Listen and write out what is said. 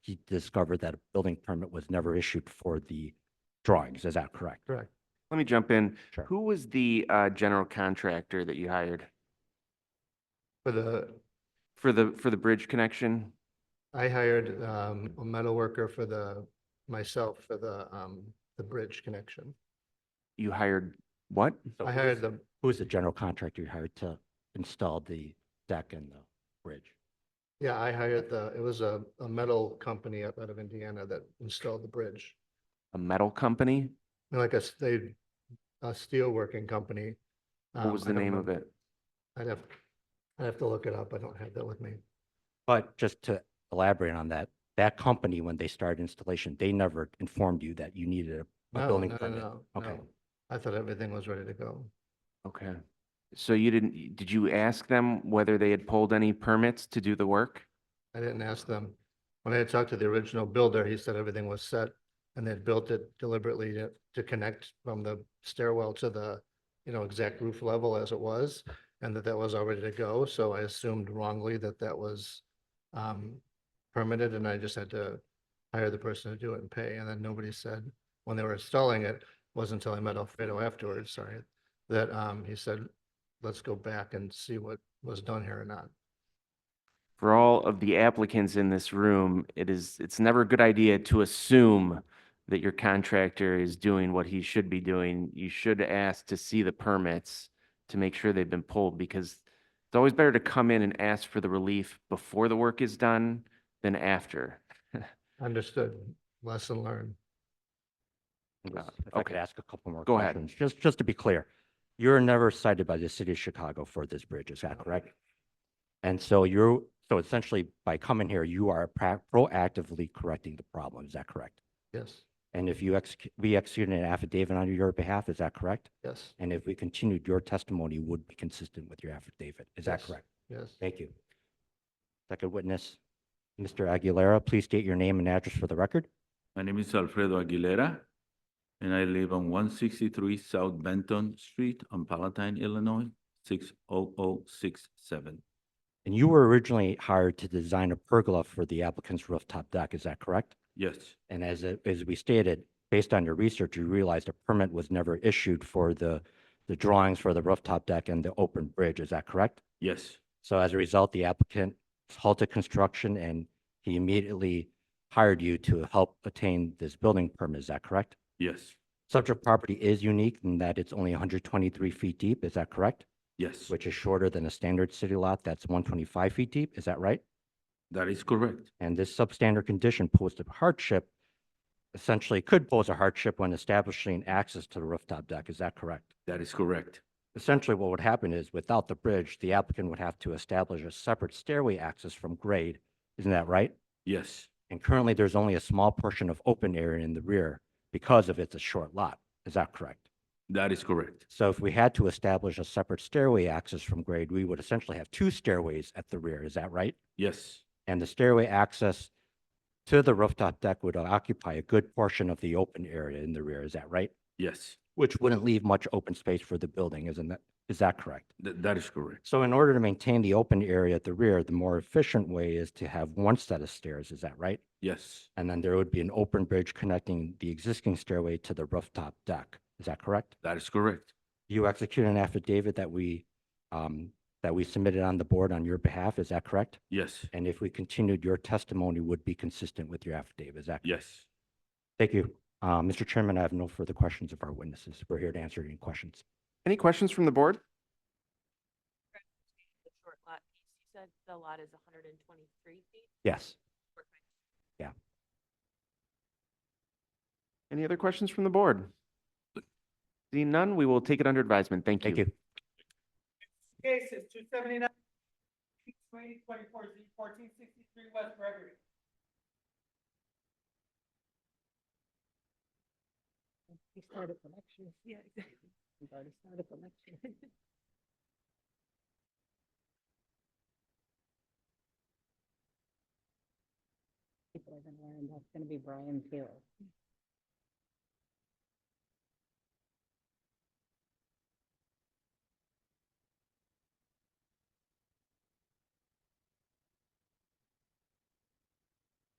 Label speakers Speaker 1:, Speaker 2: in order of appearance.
Speaker 1: he discovered that a building permit was never issued for the drawings. Is that correct?
Speaker 2: Correct.
Speaker 3: Let me jump in.
Speaker 1: Sure.
Speaker 3: Who was the uh, general contractor that you hired
Speaker 2: For the,
Speaker 3: for the, for the bridge connection?
Speaker 2: I hired um, a metal worker for the, myself for the, um, the bridge connection.
Speaker 3: You hired what?
Speaker 1: So
Speaker 2: I
Speaker 1: who's-
Speaker 2: hired the,
Speaker 1: Who's the general contractor you hired to install the deck and the bridge?
Speaker 2: yeah, I hired the, it was a, a metal company up out of Indiana that installed the bridge.
Speaker 3: A metal company?
Speaker 2: And Like a, s- they, a steel working company.
Speaker 3: What
Speaker 2: Um,
Speaker 3: was
Speaker 2: I
Speaker 3: the
Speaker 2: don't
Speaker 3: name of
Speaker 2: remember.
Speaker 3: it?
Speaker 2: I'd have, I'd have to look it up. I don't have that with me.
Speaker 1: But just to elaborate on that, that company, when they started installation, they never informed you that you needed a- a
Speaker 2: No,
Speaker 1: building
Speaker 2: no, no,
Speaker 1: permit.
Speaker 2: no,
Speaker 1: Okay.
Speaker 2: no. I thought everything was ready to go.
Speaker 3: Okay. So you didn't, did you ask them whether they had pulled any permits to do the work?
Speaker 2: I didn't ask them. When I had talked to the original builder, he said everything was set and they'd built it deliberately to, to connect from the stairwell to the, you know, exact roof level as it was, and that that was all ready to go. So I assumed wrongly that that was um, permitted and I just had to hire the person to do it and pay. And then nobody said, when they were installing it, wasn't until I met Alfredo afterwards, sorry, that um, he said, let's go back and see what was done here or not.
Speaker 3: for all of the applicants in this room, it is, it's never a good idea to assume that your contractor is doing what he should be doing. You should ask to see the permits to make sure they've been pulled because it's always better to come in and ask for the relief before the work is done than after.
Speaker 2: Understood. Lesson learned.
Speaker 1: was-
Speaker 3: Uh,
Speaker 1: If I could
Speaker 3: okay.
Speaker 1: ask a couple more
Speaker 3: Go ahead.
Speaker 1: questions, just, just to be clear, you're never cited by the city of Chicago for this bridge, is that correct? And so you're, so essentially by coming here, you are pra- proactively correcting the problem, is that correct?
Speaker 2: Yes,
Speaker 1: And if you execute, we executed an affidavit on your behalf, is that correct?
Speaker 2: yes,
Speaker 1: And if we continued, your testimony would be consistent with your affidavit, is that
Speaker 2: Yes.
Speaker 1: correct?
Speaker 2: yes.
Speaker 1: Thank you. Second witness, Mr. Aguilera, please state your name and address for the record.
Speaker 4: My name is Alfredo Aguilera, and I live on one sixty-three South Benton Street on Palatine, Illinois, six oh oh six seven.
Speaker 1: And you were originally hired to design a pergola for the applicant's rooftop deck, is that correct?
Speaker 4: Yes,
Speaker 1: And as, it- as we stated, based on your research, you realized a permit was never issued for the, the drawings for the rooftop deck and the open bridge, is that correct?
Speaker 4: yes,
Speaker 1: So as a result, the applicant halted construction and he immediately hired you to help attain this building permit, is that correct?
Speaker 4: yes,
Speaker 1: Subject property is unique in that it's only 123 feet deep, is that correct?
Speaker 4: yes.
Speaker 1: Which is shorter than a standard city lot that's 125 feet deep, is that right?
Speaker 4: That is correct.
Speaker 1: And this substandard condition posed a hardship, essentially could pose a hardship when establishing access to the rooftop deck. Is that correct?
Speaker 4: That is correct.
Speaker 1: Essentially, what would happen is without the bridge, the applicant would have to establish a separate stairway access from grade. Isn't that right?
Speaker 4: Yes,
Speaker 1: And currently, there's only a small portion of open area in the rear because of it's a short lot. Is that correct?
Speaker 4: that is correct.
Speaker 1: So if we had to establish a separate stairway access from grade, we would essentially have two stairways at the rear. Is that right?
Speaker 4: Yes,
Speaker 1: and the stairway access to the rooftop deck would occupy a good portion of the open area in the rear, is that right?
Speaker 4: yes,
Speaker 1: Which wouldn't leave much open space for the building, isn't that, is that correct?
Speaker 4: Th- that is correct.
Speaker 1: So in order to maintain the open area at the rear, the more efficient way is to have one set of stairs, is that right?
Speaker 4: Yes,
Speaker 1: And then there would be an open bridge connecting the existing stairway to the rooftop deck, is that correct?
Speaker 4: that is correct.
Speaker 1: You execute an affidavit that we, um, that we submitted on the board on your behalf, is that correct?
Speaker 4: Yes,
Speaker 1: And if we continued, your testimony would be consistent with your affidavit, is that correct?
Speaker 4: yes.
Speaker 1: Thank you. Uh, Mr. Chairman, I have no further questions of our witnesses. We're here to answer any questions.
Speaker 3: Any questions from the board?
Speaker 5: the short lot piece, you said the lot is hundred and twenty-three feet?
Speaker 1: Yes.
Speaker 5: or kind of-
Speaker 3: Any other questions from the board? Seeing none, we will take it under advisement. Thank you.
Speaker 1: Thank you.
Speaker 6: Case is two seventy-nine, twenty, twenty-four, Z, fourteen sixty-three West Gregory.
Speaker 7: We started the lecture. Yeah, exactly. We've already started the lecture. People are gonna learn, that's gonna be Brian Taylor.